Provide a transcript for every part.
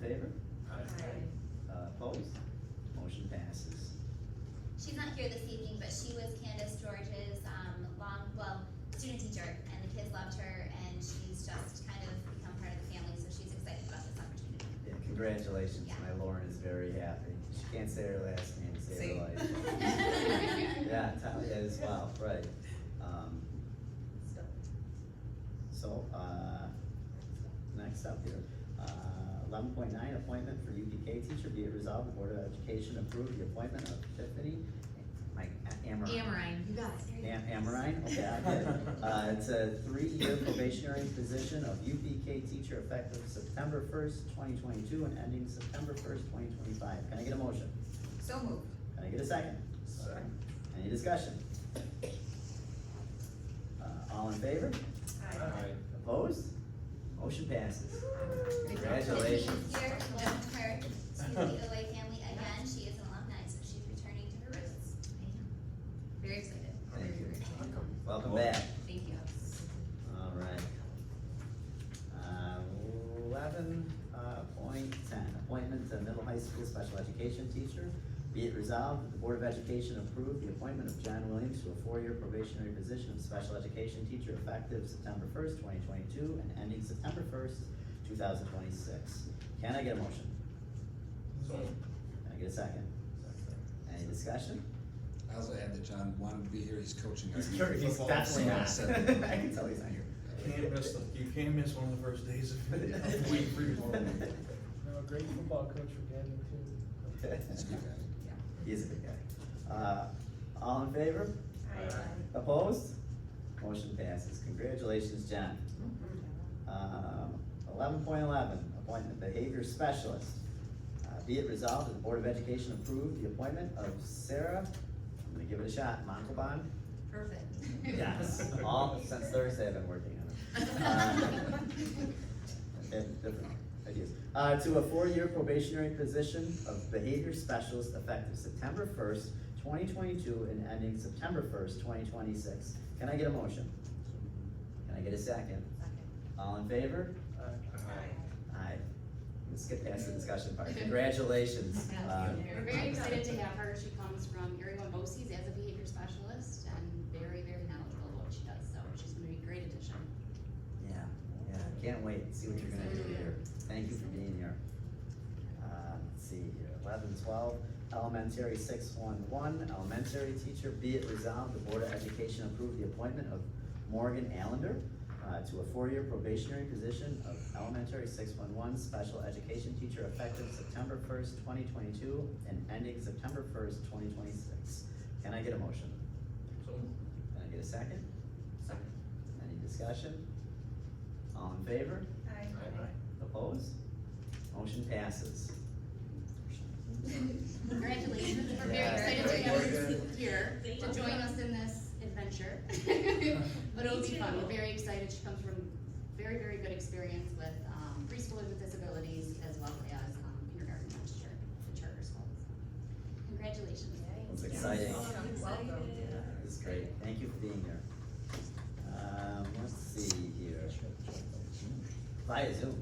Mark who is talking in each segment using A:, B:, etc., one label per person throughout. A: favor?
B: Aye.
A: Uh, opposed? Motion passes.
C: She's not here this evening, but she was Candace George's, um, long, well, student teacher, and the kids loved her, and she's just kind of become part of the family, so she's excited about this opportunity.
A: Yeah, congratulations, my Lauren is very happy. She can't say her last name, say her life. Yeah, Talia as well, right. Um, So, uh, next up here, Uh, eleven point nine, appointment for UPK teacher, be it resolved, the Board of Education approve the appointment of Tiffany, Mike, uh, Amherst.
D: Amrine.
B: You got it.
A: Am- Amorine, okay, I get it. Uh, it's a three-year probationary position of UPK teacher effective September first, twenty twenty-two and ending September first, twenty twenty-five. Can I get a motion?
D: So moved.
A: Can I get a second?
E: Second.
A: Any discussion? Uh, all in favor?
E: Aye.
A: Opposed? Motion passes.
C: She's
A: Congratulations.
C: here, welcome her to the OA family again, she is an alumni, so she's returning to her roots.
D: Very excited.
A: Thank you.
D: Welcome.
A: Welcome back.
D: Thank you.
A: All right. Eleven uh, point ten, appointment to middle high school special education teacher. Be it resolved that the Board of Education approve the appointment of John Williams to a four-year probationary position of special education teacher effective September first, twenty twenty-two and ending September first, two thousand twenty-six. Can I get a motion?
E: So moved.
A: Can I get a second? Any discussion?
F: I also add that John wanted to be here, he's coaching our.
A: He's
F: youth
A: cur- he's
F: football,
A: definitely
F: so I
A: not.
F: said-
A: I can tell he's not here.
E: Can't miss, the- you can't miss one of the first days of of week free for
G: No, a great football coach for Gavin too.
F: He's a good guy.
A: He is a big guy. Uh, all in favor?
B: Aye.
A: Opposed? Motion passes. Congratulations, John. Eleven point eleven, appointment behavior specialist. Uh, Be it resolved that the Board of Education approve the appointment of Sarah, I'm gonna give it a shot, Montalban?
D: Perfect.
A: Yes, all, since Thursday I've been working on it. Uh, Okay, different ideas. Uh, to a four-year probationary position of behavior specialist effective September first, twenty twenty-two and ending September first, twenty twenty-six. Can I get a motion? Can I get a second? All in favor?
G: Uh,
A: Aye. Let's get past the discussion part. Congratulations. uh,
H: We're very excited to have her. She comes from Erie One Bosse's as a behavior specialist and very, very knowledgeable of what she does, so she's gonna be a great addition.
A: Yeah, yeah, can't wait, to see what you're gonna do here. Thank you for being here. Uh, let's see, here, eleven twelve, elementary six one one, elementary teacher, be it resolved, the Board of Education approved the appointment of Morgan Allender uh, to a four-year probationary position of elementary six one one special education teacher effective September first, twenty twenty-two and ending September first, twenty twenty-six. Can I get a motion?
E: So moved.
A: Can I get a second? Any discussion? All in favor? Opposed? Motion passes.
H: Congratulations, we're very
A: Yeah,
H: excited to
A: very
H: have her
E: good.
H: here to
B: you.
H: join us in this adventure. But it'll be fun, we're very excited, she comes from very, very good experience with um, preschoolers with disabilities as well as um, kindergarten teacher, the charter schools. Congratulations.
A: It's exciting.
B: Welcome.
A: Yeah, it's great. Thank you for being here. Um, let's see here. Via Zoom. Via Zoom.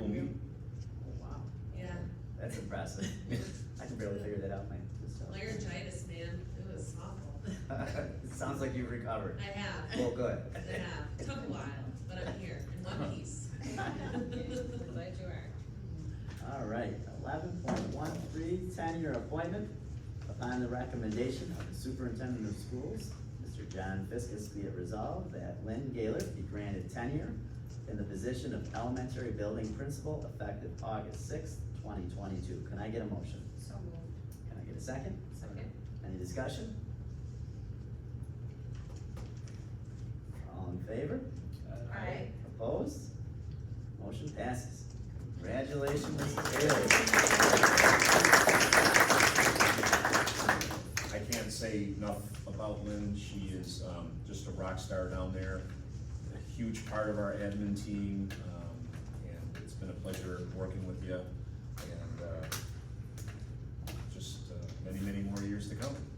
A: Oh, wow.
B: Yeah,
A: That's impressive. I can barely figure that out my, myself.
B: laryngitis, man, it was awful.
A: It sounds like you've recovered.
B: I have.
A: Well, good.
B: Yeah, took a while, but I'm here in one piece. Glad you are.
A: All right, eleven point one three, ten-year appointment upon the recommendation of the superintendent of schools, Mr. John Fiskus, be it resolved that Lynn Gaylor be granted tenure in the position of elementary building principal effective August sixth, twenty twenty-two. Can I get a motion?
D: So moved.
A: Can I get a second?
B: Second.
A: Any discussion? All in favor?
B: Aye.
A: Opposed? Motion passes. Congratulations, Mrs. Gaylor.
I: I can't say enough about Lynn, she is, um, just a rock star down there, a huge part of our admin team, um, and it's been a pleasure working with you, and, uh, just, uh, many, many more years to come.